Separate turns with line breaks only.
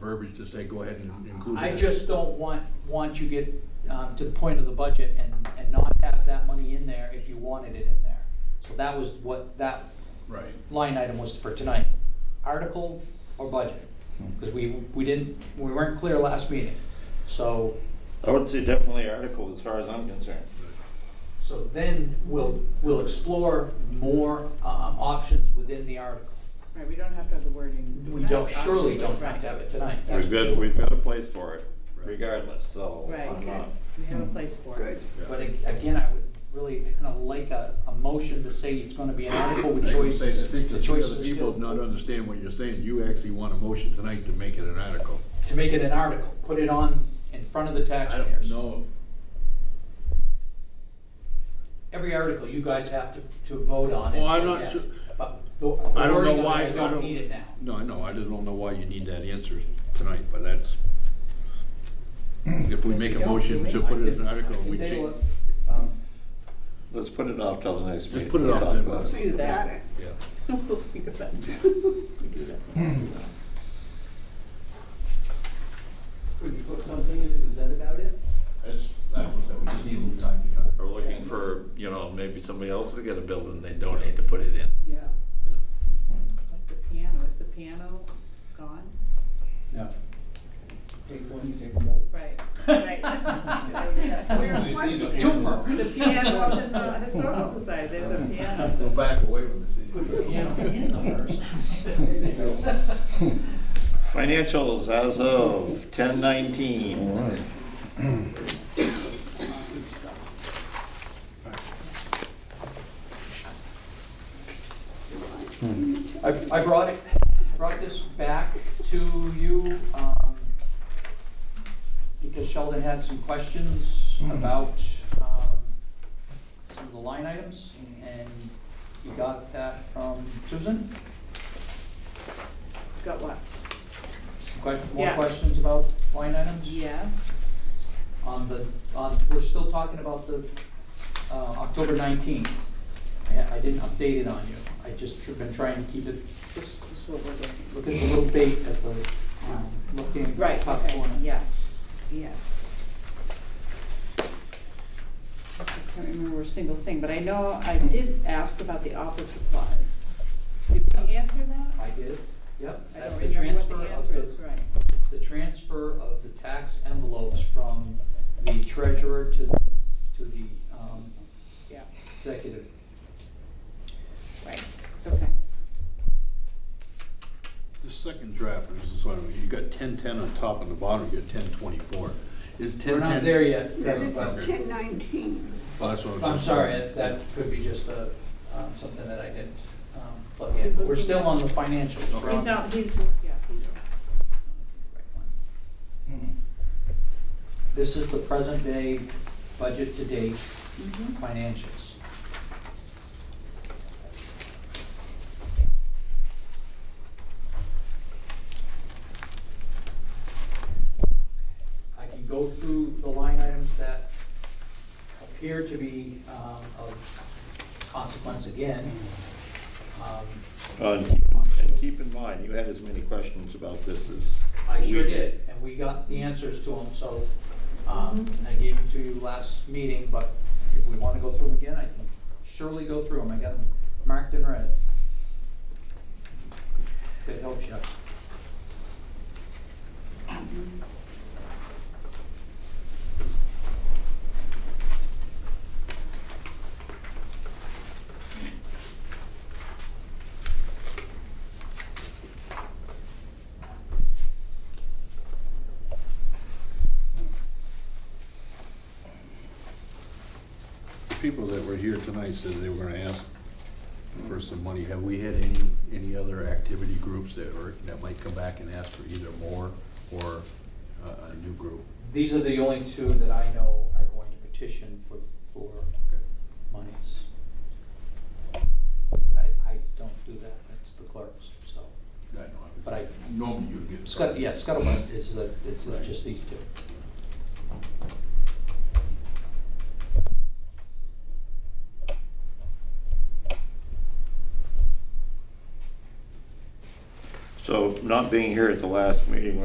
verbiage to say, go ahead and include it.
I just don't want, want you get, um, to the point of the budget and, and not have that money in there if you wanted it in there. So that was what that
Right.
line item was for tonight, article or budget?
Hmm.
Because we, we didn't, we weren't clear last meeting. So,
I would say definitely article as far as I'm concerned.
so then we'll, we'll explore more, um, options within the article.
Right, we don't have to have the wording.
We don't, surely
Obviously,
don't have
right.
to have it tonight. that's
We've
for
got,
sure.
we've got a place for it
Right.
regardless, so.
Right.
I'm not-
We have a place for it.
Good.
Yeah.
But ag- again, I would really kind of like a, a motion to say it's gonna be an article with
I would say, I
choices.
think the
the
three
choices
other
are
people
still-
not understand what you're saying, you actually want a motion tonight to make it an article.
To make it an article, put it on in front of the
I don't
taxpayers.
know,
Every article you guys have to, to vote on.
Well,
and-
I'm not
yeah.
su-
But the- the
I don't know
wording of it,
why, I
I
don't.
don't need it now.
No, I know, I just don't know why you need that answer tonight, but that's, if we make a motion to put it as an article, we change.
um,
Let's put it off till the next meeting.
put it off
Talk
then.
about
We'll
it.
see about it.
Yeah.
We'll think about it.
Could you put something in the Gazette about it?
That's, that was, we just need a little time to cut.
Or looking for, you know, maybe somebody else has got a building they donate to put it in.
Yeah. Like the piano, is the piano gone?
No. Take one, you take both.
Right, right.
the
The piano up in the historical society, there's a piano.
Go back away from the city.
Financials as of ten nineteen.
I, I brought it, brought this back to you, um, because Sheldon had some questions about, um, some of the line items, and he got that from Susan?
Got what?
Some que- more
Yeah.
questions about line items?
Yes.
on the, on, we're still talking about the, uh, October nineteenth. I, I didn't update it on you, I just tr- been trying to keep it,
This this is what we're looking for.
look at the little date at the, um, looking
Right,
top
okay,
corner.
yes, yes. I can't remember a single thing, but I know I did ask about the office supplies. Did we answer that?
I did, yep.
I
that's
don't
the
remember what the
transfer of
answer is, right.
It's the transfer of the tax envelopes from the treasurer to, the to the, um,
Yeah,
executive.
right, okay.
The second draft, and this is one, you got ten ten on top and the bottom, you got ten twenty-four. Is ten ten?
We're not there yet.
Yeah, this
but-
is ten nineteen.
Well, that's what I was
I'm
just
sorry,
saying.
that- that could be just a, um, something that I didn't um, plug in, but we're still on the financials. we're on-
He's not, he's, yeah, he's.
This is the present day budget to date Mm-hmm.
Mhm.
financials. I can go through the line items that appear to be um, of consequence again. Um,
Uh, And keep- and keep in mind, you had as many questions about this as.
I sure
we
did, and we got the answers to them, so, um, I gave them to you last meeting, but if we wanna go through them again, I can surely go through them, I got them marked in red. If it helps you.
People that were here tonight said they were gonna ask for some money. Have we had any, any other activity groups that are, that might come back and ask for either more or uh, a, a new group?
These are the only two that I know are going to petition for, for monies. I, I don't do that, that's the clerks, so.
I don't know.
But I-
Normally you'd get.
Scott, yeah, Scuttlebutt is, the- it's just these two.
So not being here at the last meeting